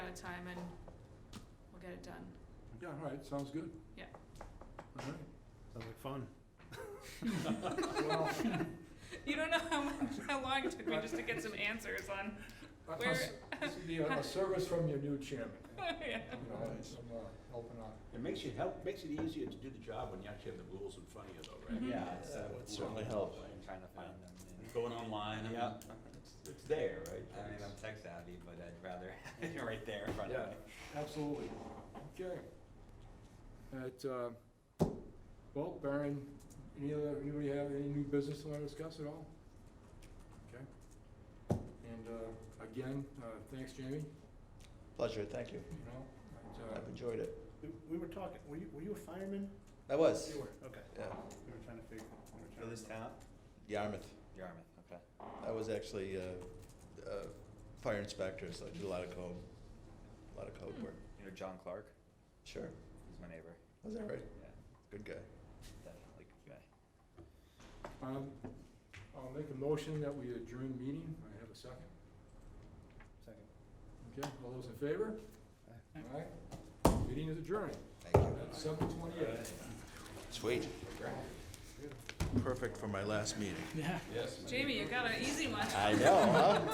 of time and we'll get it done. Yeah, all right, sounds good. Yeah. All right. Sounds like fun. You don't know how much, how long it took me just to get some answers on, A- a Where- s- This would be a, a service from your new chairman, yeah. you know, and some, uh, helping out. It makes you help, makes it easier to do the job when you actually have the rules in front of you though, right? Mhm. Yeah, it's, uh, That would we're certainly on- help. I'm Trying to find them. and- Going online, I mean, Yeah. it's, it's there, right? I mean, I'm tech savvy, but I'd rather have it right there in front of Yeah, me. absolutely. Okay. At, uh, well, Baron, any other, anybody have any new business they wanna discuss at all? Okay. And, uh, again, uh, thanks, Jamie, Pleasure, thank you. you know, and, uh, I've enjoyed it. We, we were talking, were you, were you a fireman? I was, were. Okay. yeah, We were trying to figure. we were trying to- For this town? Yarmouth. Yarmouth, okay. I was actually uh, uh, fire inspector, so I did a lot of code, a lot of code work. You know John Clark? Sure, He's my neighbor. was that right? Yeah, Good guy. definitely good guy. um, I'll make a motion that we adjourn meeting. I have a second. Second. Okay, all those in favor? All right. Meeting is adjourned Thank you. at seven twenty-eight. Sweet. Perfect for my last meeting. Yes. Jamie, you got an easy one. know, huh?